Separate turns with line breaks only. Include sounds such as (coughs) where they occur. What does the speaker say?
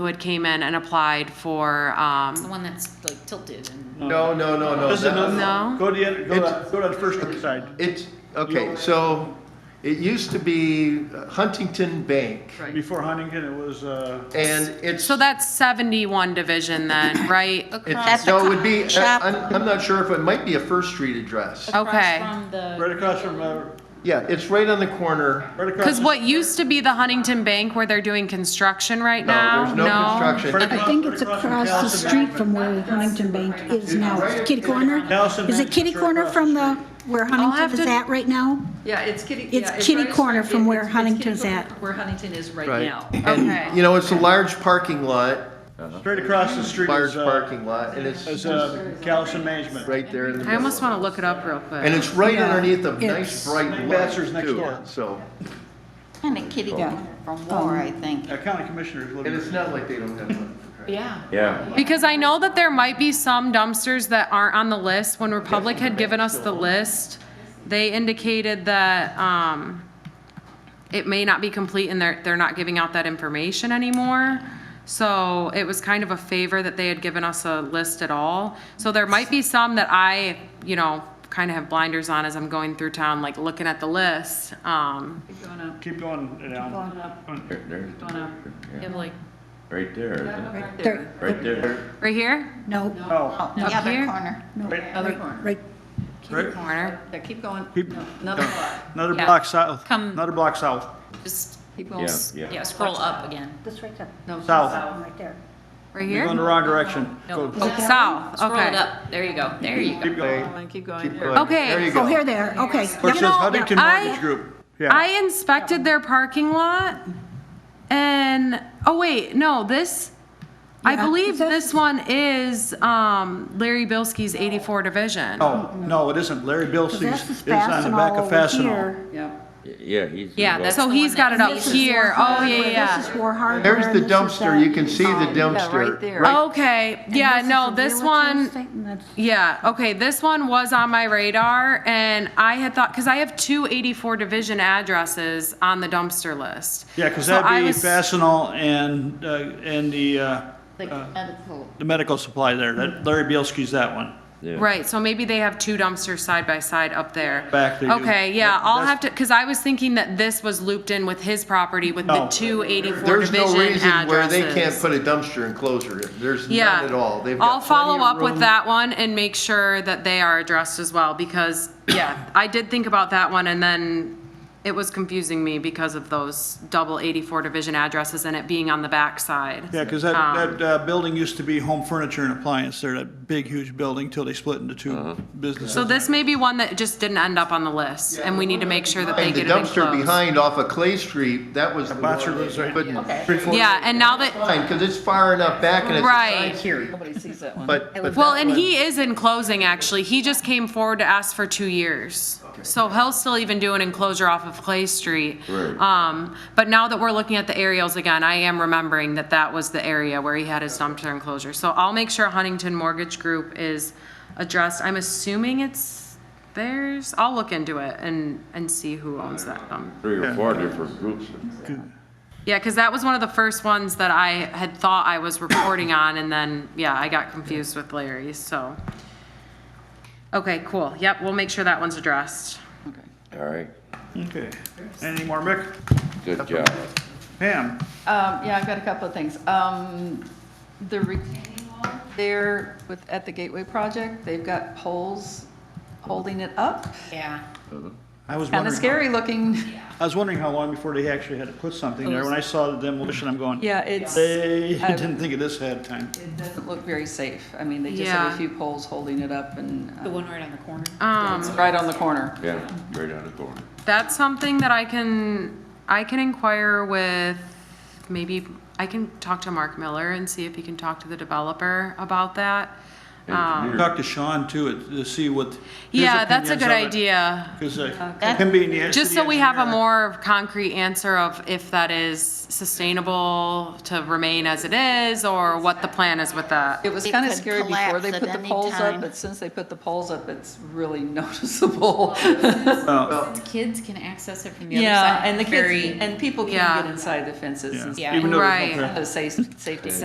who had came in and applied for,
The
um,
one that's like tilted and,
No, no, no, no.
Listen,
that-
No.
go to the, other- go to,
It's-
go to the first side.
It's, okay, so it used to be Huntington Bank
Before Huntington, it was, uh,
and it's.
so that's seventy-one division then, (coughs) right?
It's,
Across
no, it would be,
the
I-
shop.
I'm, I'm not sure if it might be a First Street address.
Okay.
across from the,
right across from, uh,
Yeah, it's right on the corner.
right across.
Cause
the-
what used to be the Huntington Bank where they're doing construction right
No,
now?
there's no
Right
construction.
I
across-
think
right
it's across
from
the
Callison
street
Management.
from where Huntington Bank is now. It's Kitty Corner?
Callison
Is it
Management
Kitty
is right
Corner
across
from
the
the,
street.
where
have
Huntington is
to-
at right now?
Yeah, it's kitty.
It's
yeah,
kitty
right-
corner from
it-
where
it's- it's
Huntington's
kitty
at.
corner Where Huntington is right
Right.
now.
Okay.
And, you know, it's a large parking lot,
Straight across the street
large
is, uh,
parking lot, and it's
is, uh, Callison Management.
right there in the
I almost
middle.
wanna look it up real quick.
And it's right
Yeah,
underneath a
it's-
nice bright light
Bachelor's next
too,
door.
so.
Kind of kitty corner from war, I think.
Uh, county commissioners
And it's
living.
not like they don't have one.
yeah.
Yeah,
Because I know that there might be some dumpsters that aren't on the list. When Republic had given us the list, they indicated that, um, it may not be complete and they're, they're not giving out that information anymore. So it was kind of a favor that they had given us a list at all. So there might be some that I, you know, kind of have blinders on as I'm going through town, like looking at the list. Um,
Keep going up,
Keep going um, down.
going up,
there, there,
going up. You have like,
right there, isn't it?
right there,
There,
right there.
right here,
no,
Oh,
Oh, the
Up
other
here?
corner.
right,
other corner.
right,
right,
corner.
There, keep going,
Keep-
No, another block.
another
Yeah.
block south,
Come-
another block south.
Just,
Keep going.
Yeah.
s- yeah, scroll up again.
this right there,
No,
South.
Oh, right there.
Right
You're going
here?
the wrong direction.
No,
Go-
oh,
South,
scroll it
okay.
up. There you go, there you go.
Keep going.
And keep going.
Keep
There.
going.
Okay.
There you
Oh, here
go.
they are, okay.
Where it
know,
says Huntington
I-
Mortgage Group. Yeah,
I inspected their parking lot and, oh wait, no, this, I
Yeah.
believe
Is that-
this one is, um, Larry Bilski's eighty-four division.
no, no, it isn't. Larry
That's the
Bilsey's is on the
Fastenal
back of
over
Fastenal.
here.
Yeah.
Yeah, he's.
Yeah, that's-
So
the
he's
one
got
that-
it up
This is
here.
War
Oh,
Hardware,
yeah,
This is
yeah.
War Hardware.
There's the
and this is
dumpster, you can see the
Yeah, right
Oh.
dumpster.
there.
Okay, yeah,
this is
no,
the
this
realtor's
one,
thing, and that's-
yeah, okay, this one was on my radar and I had thought, cause I have two eighty-four division addresses on the dumpster list.
Yeah, because
So I
that'd be
was-
Fastenal and, uh, and the, uh,
Like medical.
the medical supply there. That Larry Bielski's that one.
yeah.
Right, so maybe they have two dumpsters side by side up there.
Back they do.
Okay, yeah, I'll
That's-
have to, because I was thinking that this was looped in with his property with the
No.
two eighty-four
There's no
division
reason where they can't
addresses.
put a dumpster enclosure in. There's
Yeah.
none at all. They've
I'll
got
follow
plenty of
up with
room.
that one and make sure that they are addressed as well, because, yeah, I did think about that one and then it was confusing me because of those double eighty-four division addresses and it being on the backside.
Yeah, because
Um,
Ah.
that, that uh, building used to be home furniture and appliance there, that big, huge building till they split into
Uh-huh.
two businesses.
So this may be one that just didn't end up on the list and we need to make sure that they
And the
get it
dumpster
enclosed.
behind off of Clay Street, that was the one.
Botcher lives right-
But
Yeah, and now that,
fine, because it's far enough back and it's
Right.
not here.
Nobody sees that one.
But, but
Well,
that
and
one-
he is in closing, actually. He just came forward to ask for two years. So he'll still even do an enclosure off of Clay Street.
Right.
Um, but now that we're looking at the aerials again, I am remembering that that was the area where he had his dumpster enclosure. So I'll make sure Huntington Mortgage Group is addressed. I'm assuming it's theirs. I'll look into it and, and see who owns that dump.
Three or four different groups.
Yeah, because that was one of the first ones that I had thought I was
(coughs)
reporting on, and then, yeah, I got confused with Larry's, so. Okay, cool. Yep, we'll make sure that one's addressed.
All right,
Okay. Any more, Mick?
good job.
Pam?
Um, yeah, I've got a couple of things. Um, the retaining wall there with, at the Gateway Project, they've got poles holding it up.
Yeah.
I was
Kind of
wondering,
scary looking.
how- I was wondering how long before they actually had to put something there. When I saw the demolition, I'm going,
Yeah, it's, it
they (laughs)
I-
didn't think of this ahead of time.
doesn't look very safe. I mean, they just have
Yeah.
a few poles holding it up and,
The
uh,
one right on the corner.
it's
Um,
right on the corner.
Yeah, right on the corner.
that's something that I can, I can inquire with, maybe, I can talk to Mark Miller and see if he can talk to the developer about that.
Engineer.
Talk to Sean too, it- to see what. his
Yeah, that's a
opinions
good
of it,
idea.
'cause, uh, him being the
Just so
city
we have a
engineer-
more concrete answer of if that is sustainable to remain as it is or what the plan is with that.
It was
It
kind of
could
scary before they
collapse at
put the
any
poles up,
time.
but since they put the poles up, it's really (laughs) noticeable.
Since kids can access it from the other side.
Yeah, and the
very-
kids, and people can
Yeah.
get inside the fences and
Yeah.
Even though there's no
Right.
traffic.
stuff, safety